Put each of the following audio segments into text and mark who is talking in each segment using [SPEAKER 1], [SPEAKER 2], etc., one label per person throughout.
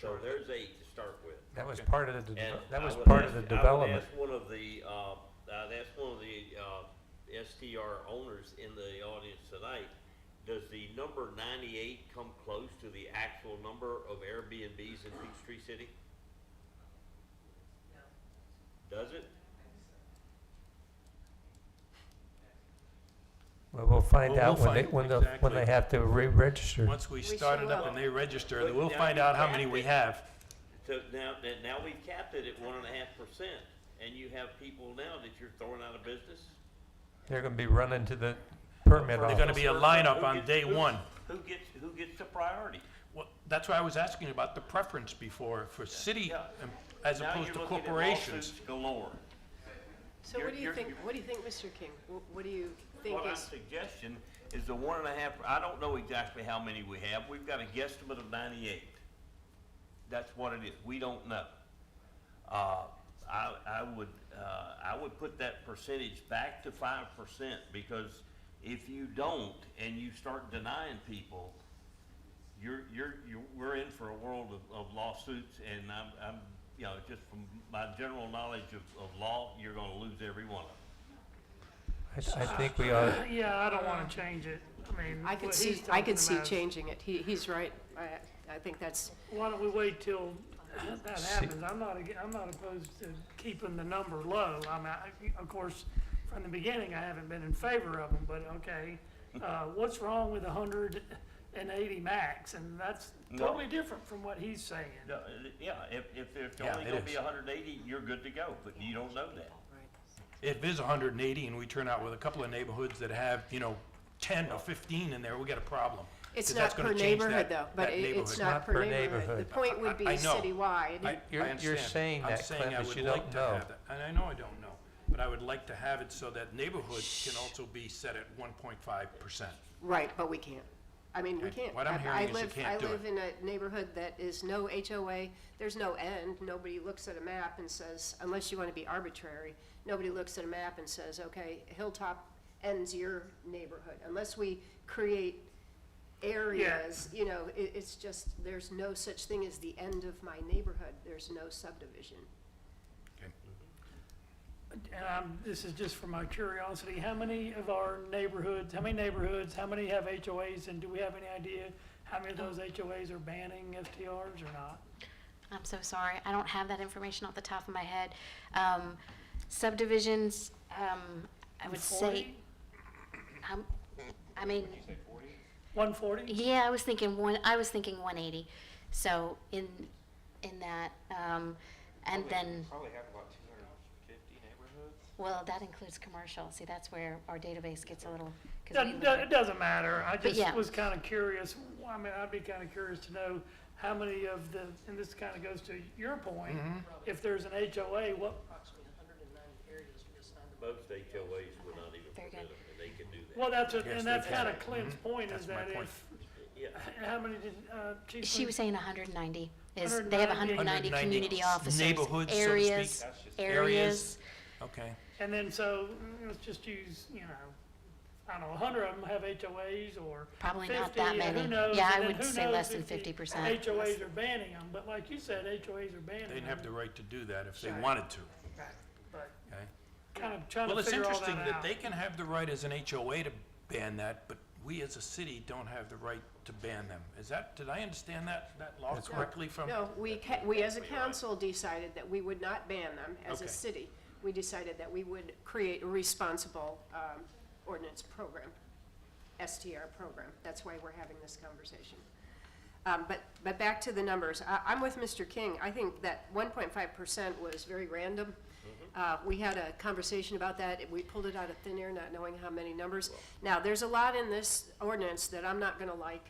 [SPEAKER 1] So there's eight to start with.
[SPEAKER 2] That was
[SPEAKER 3] Okay.
[SPEAKER 2] part of the, de-
[SPEAKER 1] And
[SPEAKER 2] that
[SPEAKER 1] I
[SPEAKER 2] was
[SPEAKER 1] would
[SPEAKER 2] part of
[SPEAKER 1] ask-
[SPEAKER 2] the
[SPEAKER 1] I would
[SPEAKER 2] development.
[SPEAKER 1] ask one of the, uh, I'd ask one of the, uh, STR owners in the audience tonight, does the number ninety-eight come close to the actual number of Airbnbs in Peachtree City? Does it?
[SPEAKER 2] Well, we'll find
[SPEAKER 3] We'll-
[SPEAKER 2] out
[SPEAKER 3] we'll
[SPEAKER 2] when they,
[SPEAKER 3] find-
[SPEAKER 2] when the, when they
[SPEAKER 3] exactly.
[SPEAKER 2] have to re-register.
[SPEAKER 3] Once we
[SPEAKER 4] sure
[SPEAKER 3] start it up
[SPEAKER 4] will.
[SPEAKER 3] and they register, then
[SPEAKER 1] But
[SPEAKER 3] we'll
[SPEAKER 1] now
[SPEAKER 3] find
[SPEAKER 1] you
[SPEAKER 3] out how
[SPEAKER 1] have
[SPEAKER 3] many
[SPEAKER 1] to-
[SPEAKER 3] we have.
[SPEAKER 1] So now, that- now we've capped it at one and a half percent, and you have people now that you're throwing out of business?
[SPEAKER 2] They're gonna be running to the permit
[SPEAKER 3] They're gonna
[SPEAKER 2] office.
[SPEAKER 3] be a lineup
[SPEAKER 1] Who
[SPEAKER 3] on
[SPEAKER 1] gets-
[SPEAKER 3] day
[SPEAKER 1] who-
[SPEAKER 3] one.
[SPEAKER 1] Who gets, who gets the priority?
[SPEAKER 3] Well, that's why I was asking about the preference before for city
[SPEAKER 1] Yeah.
[SPEAKER 3] em- as
[SPEAKER 1] Now
[SPEAKER 3] opposed to
[SPEAKER 1] you're looking at
[SPEAKER 3] corporations.
[SPEAKER 1] lawsuits Galore.
[SPEAKER 4] So
[SPEAKER 1] You're-
[SPEAKER 4] what do you
[SPEAKER 1] you're-
[SPEAKER 4] think,
[SPEAKER 1] you're-
[SPEAKER 4] what do you think, Mr. King? Wh- What do you think
[SPEAKER 1] What I
[SPEAKER 4] is,
[SPEAKER 1] suggestion is the one and a half, I don't know exactly how many we have, we've got a guesstimate of ninety-eight. That's what it is, we don't know. Uh, I, I would, uh, I would put that percentage back to five percent, because if you don't, and you start denying people, you're, you're, you're, we're in for a world of, of lawsuits, and I'm, I'm, you know, just from my general knowledge of, of law, you're gonna lose every one of them.
[SPEAKER 2] I, I think we ought,
[SPEAKER 5] Yeah, I don't wanna change it. I mean.
[SPEAKER 4] I could
[SPEAKER 5] what
[SPEAKER 4] see,
[SPEAKER 5] he's
[SPEAKER 4] I could
[SPEAKER 5] talking
[SPEAKER 4] see
[SPEAKER 5] about.
[SPEAKER 4] changing it. He, he's right. I, I think that's,
[SPEAKER 5] Why don't we wait till that
[SPEAKER 2] See-
[SPEAKER 5] happens? I'm not, ag- I'm not opposed to keeping the number low. I mean, I, of course, from the beginning, I haven't been in favor of them, but okay. Uh, what's wrong with hundred and eighty max? And that's
[SPEAKER 1] No.
[SPEAKER 5] totally different from what he's saying.
[SPEAKER 1] No, uh, Yeah, if, if there's
[SPEAKER 3] Yeah,
[SPEAKER 1] only
[SPEAKER 3] it
[SPEAKER 1] gonna be
[SPEAKER 3] is.
[SPEAKER 1] hundred and eighty, you're good to go, but you don't know that.
[SPEAKER 3] If it is hundred and eighty and we turn out with a couple of neighborhoods that have, you know, ten or fifteen in there, we got a problem.
[SPEAKER 4] it's
[SPEAKER 3] 'Cause that's
[SPEAKER 4] not
[SPEAKER 3] gonna
[SPEAKER 4] per
[SPEAKER 3] change
[SPEAKER 4] neighborhood
[SPEAKER 3] that-
[SPEAKER 4] though, but
[SPEAKER 3] that
[SPEAKER 4] it- it's
[SPEAKER 3] neighborhood.
[SPEAKER 4] not per neighborhood. The point
[SPEAKER 3] I-
[SPEAKER 4] would be
[SPEAKER 3] I know.
[SPEAKER 4] citywide.
[SPEAKER 3] I-
[SPEAKER 2] You're-
[SPEAKER 3] I
[SPEAKER 2] you're
[SPEAKER 3] understand.
[SPEAKER 2] saying
[SPEAKER 3] I'm
[SPEAKER 2] that,
[SPEAKER 3] saying
[SPEAKER 2] Cliff,
[SPEAKER 3] I
[SPEAKER 2] is
[SPEAKER 3] would
[SPEAKER 2] you don't
[SPEAKER 3] like to
[SPEAKER 2] know.
[SPEAKER 3] have that. And I know I don't know, but I would like to have it so that neighborhoods can also be set at one point five percent.
[SPEAKER 4] Right, but we can't. I mean, we
[SPEAKER 3] Okay.
[SPEAKER 4] can't.
[SPEAKER 3] What I'm
[SPEAKER 4] I-
[SPEAKER 3] hearing
[SPEAKER 4] I
[SPEAKER 3] is you
[SPEAKER 4] live-
[SPEAKER 3] can't do
[SPEAKER 4] I
[SPEAKER 3] it.
[SPEAKER 4] live in a neighborhood that is no HOA, there's no end. Nobody looks at a map and says, unless you want to be arbitrary, nobody looks at a map and says, okay, Hilltop ends your neighborhood. Unless we create areas, you know, it, it's just, there's no such thing as the end of my neighborhood. There's no subdivision.
[SPEAKER 5] And I'm, this is just for my curiosity. How many of our neighborhoods, how many neighborhoods, how many have HOAs? And do we have any idea how many of those HOAs are banning STRs or not?
[SPEAKER 6] I'm so sorry. I don't have that information off the top of my head. Um, subdivisions, um, I would say, um, I mean,
[SPEAKER 5] One forty?
[SPEAKER 6] yeah, I was thinking one, I was thinking one eighty. So in, in that, um, and then,
[SPEAKER 7] Probably have about two hundred and fifty neighborhoods.
[SPEAKER 6] well, that includes commercial. See, that's where our database gets a little, 'cause we
[SPEAKER 5] Doesn't,
[SPEAKER 6] look at-
[SPEAKER 5] it doesn't matter. I
[SPEAKER 6] yeah.
[SPEAKER 5] just was kinda curious. Well, I mean, I'd be kinda curious to know how many of the, and this kinda goes to your point,
[SPEAKER 3] Mm-hmm.
[SPEAKER 5] if there's an HOA,
[SPEAKER 1] Most HOAs
[SPEAKER 5] what,
[SPEAKER 1] would not even
[SPEAKER 6] Very
[SPEAKER 1] permit them,
[SPEAKER 6] good.
[SPEAKER 1] and they can do that.
[SPEAKER 5] well, that's, what-
[SPEAKER 3] Yes,
[SPEAKER 5] and
[SPEAKER 3] they
[SPEAKER 5] that's
[SPEAKER 3] can.
[SPEAKER 5] kinda Clint's point is
[SPEAKER 3] That's my
[SPEAKER 5] that
[SPEAKER 3] point.
[SPEAKER 5] if,
[SPEAKER 1] Yeah,
[SPEAKER 5] how many did, uh, Chief?
[SPEAKER 6] She
[SPEAKER 5] Lee-
[SPEAKER 6] was saying hundred and ninety is, they have
[SPEAKER 5] 190.
[SPEAKER 6] hundred and ninety
[SPEAKER 3] 190
[SPEAKER 6] community officers,
[SPEAKER 3] neighborhoods, so to speak.
[SPEAKER 6] areas,
[SPEAKER 7] That's just-
[SPEAKER 6] areas.
[SPEAKER 3] Okay.
[SPEAKER 5] And then so, mm, let's just use, you know, I don't know, hundred of them have HOAs or
[SPEAKER 6] Probably
[SPEAKER 5] fifty,
[SPEAKER 6] not that
[SPEAKER 5] and who
[SPEAKER 6] many.
[SPEAKER 5] knows?
[SPEAKER 6] Yeah,
[SPEAKER 5] and
[SPEAKER 6] I
[SPEAKER 5] then
[SPEAKER 6] would
[SPEAKER 5] who
[SPEAKER 6] say
[SPEAKER 5] knows
[SPEAKER 6] less than
[SPEAKER 5] if the
[SPEAKER 6] 50%.
[SPEAKER 5] HOAs are banning them, but like you said, HOAs are banning them.
[SPEAKER 3] They'd have the right to do that if they
[SPEAKER 5] Sure.
[SPEAKER 3] wanted to,
[SPEAKER 5] But
[SPEAKER 3] okay?
[SPEAKER 5] kind of trying
[SPEAKER 3] Well,
[SPEAKER 5] to
[SPEAKER 3] it's
[SPEAKER 5] figure all
[SPEAKER 3] interesting
[SPEAKER 5] that
[SPEAKER 3] that
[SPEAKER 5] out.
[SPEAKER 3] they can have the right as an HOA to ban that, but we as a city don't have the right to ban them. Is that, did I understand that, that law correctly from?
[SPEAKER 4] No, we, ca- we as a council decided that we would not ban them as a
[SPEAKER 3] Okay.
[SPEAKER 4] city. We decided that we would create a responsible um, ordinance program, STR program. That's why we're having this conversation. Um, But, but back to the numbers. I, I'm with Mr. King. I think that 1.5% was very random.
[SPEAKER 1] Mm-hmm.
[SPEAKER 4] Uh, We had a conversation about that. We pulled it out of thin air, not knowing how many numbers. Now, there's a lot in this ordinance that I'm not going to like.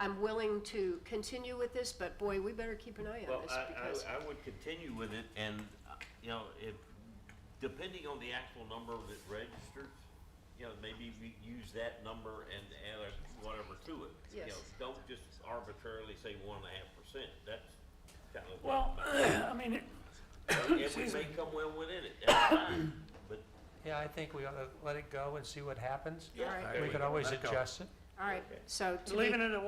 [SPEAKER 4] I'm willing to continue with this, but boy, we better keep an eye
[SPEAKER 1] well,
[SPEAKER 4] on this
[SPEAKER 1] I,
[SPEAKER 4] because,
[SPEAKER 1] I, I would continue with it, and, uh, you know, if, depending on the actual number that registers, you know, maybe we use that number and add a whatever to it. You
[SPEAKER 4] Yes.
[SPEAKER 1] know, Don't just arbitrarily say one and a half percent, that's kind of.
[SPEAKER 5] Well, I mean, it-
[SPEAKER 1] And we may come well within it, that's fine, but,
[SPEAKER 2] yeah, I think we ought to let it go and see what happens.
[SPEAKER 4] all right,
[SPEAKER 3] There
[SPEAKER 2] We
[SPEAKER 3] we
[SPEAKER 2] could
[SPEAKER 3] go.
[SPEAKER 2] always
[SPEAKER 3] Let it go.
[SPEAKER 2] adjust it.
[SPEAKER 4] all right. So to be
[SPEAKER 5] leaving it at